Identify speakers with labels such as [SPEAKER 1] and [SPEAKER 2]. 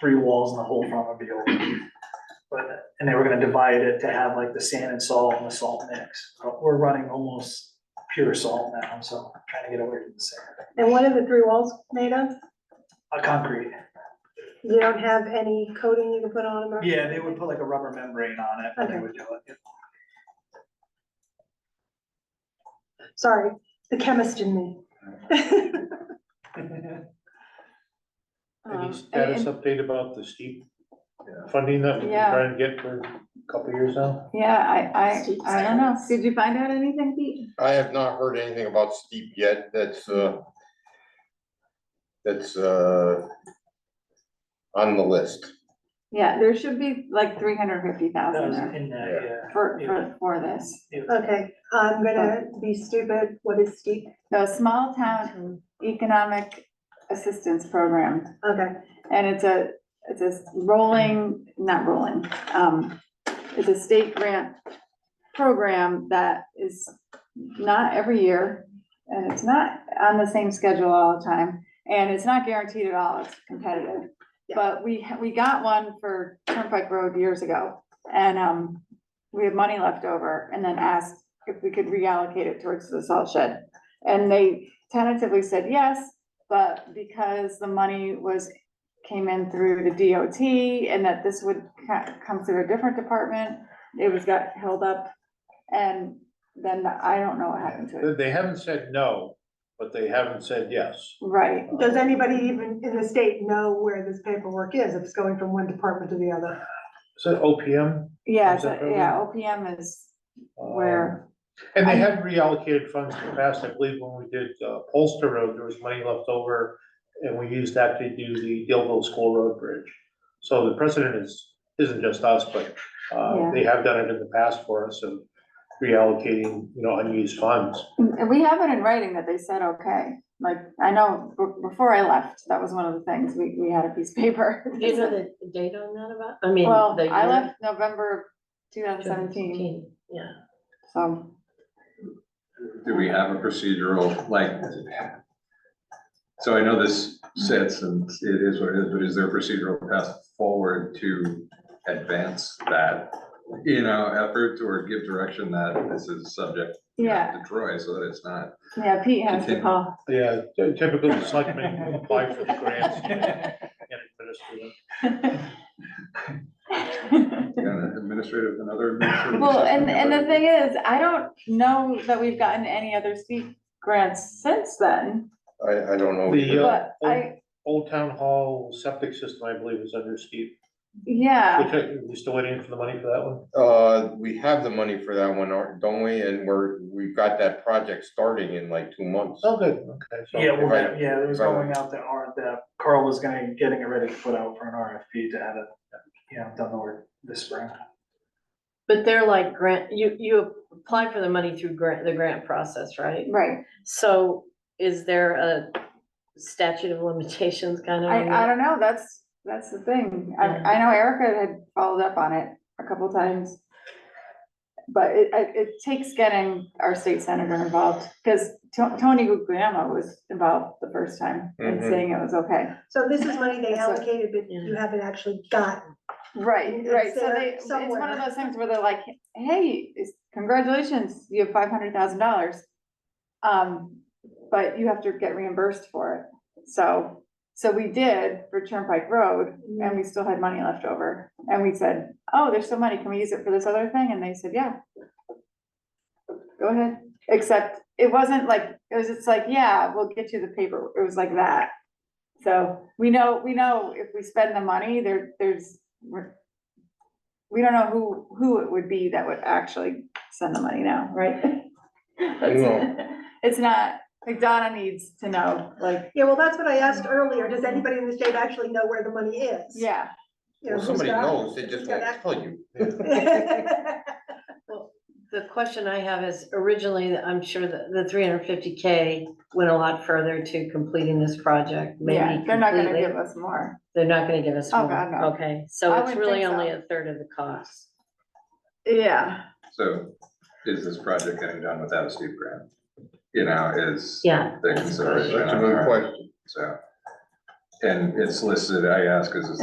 [SPEAKER 1] three walls and the whole front would be open. But, and they were gonna divide it to have like the sand and salt and the salt mix. But We're running almost pure salt now, so trying to get away from the sand.
[SPEAKER 2] And what are the three walls made of?
[SPEAKER 1] A concrete,
[SPEAKER 2] You don't have any coating you can put on them? or-
[SPEAKER 1] yeah, they would put like a rubber membrane on it and they would do it.
[SPEAKER 2] Sorry, the chemist in me. Um,
[SPEAKER 3] Any
[SPEAKER 4] Um, and-
[SPEAKER 3] status update about the steep funding that we've been
[SPEAKER 4] Yeah.
[SPEAKER 3] trying to get for a couple of years now?
[SPEAKER 4] Yeah, I,
[SPEAKER 2] Steep
[SPEAKER 4] I, I don't know. Did you find out anything, Pete?
[SPEAKER 5] I have not heard anything about steep yet, that's, uh, that's, uh, on the list.
[SPEAKER 4] Yeah, there should be like three hundred fifty
[SPEAKER 1] That
[SPEAKER 4] thousand
[SPEAKER 1] was
[SPEAKER 4] there
[SPEAKER 1] in that, yeah.
[SPEAKER 4] for, for, for this.
[SPEAKER 1] It was-
[SPEAKER 2] Okay, I'm gonna be stupid. What is steep?
[SPEAKER 4] So small town economic assistance program,
[SPEAKER 2] Okay,
[SPEAKER 4] and it's a, it's a rolling, not rolling, um, it's a state grant program that is not every year, and it's not on the same schedule all the time, and it's not guaranteed at all, it's competitive.
[SPEAKER 2] Yeah.
[SPEAKER 4] But we, ha- we got one for Turnpike Road years ago, and, um, we had money left over, and then asked if we could reallocate it towards the salt shed. And they tentatively said yes, but because the money was, came in through the DOT, and that this would ca- come through a different department, it was got held up, and then the- I don't know what happened to it.
[SPEAKER 3] They- They haven't said no, but they haven't said yes.
[SPEAKER 4] Right,
[SPEAKER 2] does anybody even in the state know where this paperwork is, if it's going from one department to the other?
[SPEAKER 3] Is that OPM?
[SPEAKER 4] yeah,
[SPEAKER 3] Is that
[SPEAKER 4] so- yeah, OPM is
[SPEAKER 3] Um,
[SPEAKER 4] where,
[SPEAKER 3] And they have reallocated funds in the past, I believe when we did uh, Polster Road, there was money left over, and we used that to do the Dillville School Road Bridge. So the precedent is, isn't just us, but uh,
[SPEAKER 4] Yeah.
[SPEAKER 3] they have done it in the past for us, of reallocating, you know, unused funds.
[SPEAKER 4] and we have it in writing that they said, okay. Like, I know, b- before I left, that was one of the things, we, we had a piece of paper.
[SPEAKER 6] Do you know the date on that about, I mean,
[SPEAKER 4] Well,
[SPEAKER 6] the year?
[SPEAKER 4] I left November two thousand seventeen,
[SPEAKER 6] 2017, Yeah,
[SPEAKER 4] so,
[SPEAKER 7] Do we have a procedural, like, so I know this sits and it is what it is, but is there a procedural path forward to advance that? You know, effort or give direction that this is subject you know,
[SPEAKER 4] yeah,
[SPEAKER 7] to Troy, so that it's not.
[SPEAKER 4] yeah, Pete has to
[SPEAKER 7] Continue.
[SPEAKER 4] call.
[SPEAKER 3] Yeah, typically, the selectmen apply for the grants and administer them.
[SPEAKER 7] you know, an Administrative, another. administrative
[SPEAKER 4] Well, and,
[SPEAKER 7] assistant,
[SPEAKER 4] and the
[SPEAKER 7] but-
[SPEAKER 4] thing is, I don't know that we've gotten any other steep grants since then,
[SPEAKER 5] I, I don't know.
[SPEAKER 3] The, uh,
[SPEAKER 4] but I,
[SPEAKER 3] Old Town Hall septic system, I believe, is under Steve,
[SPEAKER 4] yeah,
[SPEAKER 3] which I, we still waiting for the money for that one?
[SPEAKER 5] Uh, we have the money for that one, aren't- don't we? And we're, we've got that project starting in like two months.
[SPEAKER 3] Oh, good, okay, so.
[SPEAKER 1] Yeah, well,
[SPEAKER 5] if I-
[SPEAKER 1] that- yeah, it was
[SPEAKER 5] if I-
[SPEAKER 1] going out that R, that Carl was gonna, getting it ready to put out for an RFP to have it, you know, done the work this spring.
[SPEAKER 6] but they're like grant, you, you apply for the money through grant, the grant process, right?
[SPEAKER 4] right,
[SPEAKER 6] So is there a statute of limitations kind of? on
[SPEAKER 4] I, I
[SPEAKER 6] that?
[SPEAKER 4] don't know, that's, that's the thing, I, I know Erica had followed up on it a couple times. But it, it, it takes getting our state senator involved, because Tony Guglielmo was involved the first time and
[SPEAKER 5] Mhm.
[SPEAKER 4] saying it was okay.
[SPEAKER 2] So this is money they
[SPEAKER 4] That's what-
[SPEAKER 2] allocated, but you haven't actually gotten.
[SPEAKER 4] Right,
[SPEAKER 2] It's
[SPEAKER 4] right, so
[SPEAKER 2] there
[SPEAKER 4] they, it's one
[SPEAKER 2] somewhere.
[SPEAKER 4] of those things where they're like, hey, it's- congratulations, you have five hundred thousand dollars. Um, but you have to get reimbursed for it, so, so we did for Turnpike Road, and we still had money left over. And we said, oh, there's still money, can we use it for this other thing, and they said, yeah. Go ahead, except it wasn't like, it was, it's like, yeah, we'll get you the paper, it was like that. So we know, we know if we spend the money, there, there's, we're, we don't know who, who it would be that would actually send the money now, right? That's- It's not, like Donna needs to know, like,
[SPEAKER 2] Yeah, well, that's what I asked earlier. Does anybody in the state actually know where the money is?
[SPEAKER 4] yeah,
[SPEAKER 2] You know, who's
[SPEAKER 5] Well, somebody
[SPEAKER 2] got it?
[SPEAKER 5] knows, they just
[SPEAKER 2] Who's got
[SPEAKER 5] won't
[SPEAKER 2] access?
[SPEAKER 5] tell you.
[SPEAKER 6] The question I have is originally, I'm sure that the three hundred fifty K went a lot further to completing this project, maybe
[SPEAKER 4] yeah, they're not gonna
[SPEAKER 6] completely.
[SPEAKER 4] give us more.
[SPEAKER 6] They're not gonna give us
[SPEAKER 4] Oh, God,
[SPEAKER 6] more,
[SPEAKER 4] no.
[SPEAKER 6] okay,
[SPEAKER 4] I
[SPEAKER 6] so it's
[SPEAKER 4] wouldn't
[SPEAKER 6] really
[SPEAKER 4] think so.
[SPEAKER 6] only a third of the cost.
[SPEAKER 4] Yeah,
[SPEAKER 7] So is this project getting done without a steep grant? You know, is.
[SPEAKER 6] Yeah.
[SPEAKER 7] The consideration.
[SPEAKER 5] That's a
[SPEAKER 7] on
[SPEAKER 5] good
[SPEAKER 7] our-
[SPEAKER 5] question.
[SPEAKER 7] So, and it's listed, I ask, is it's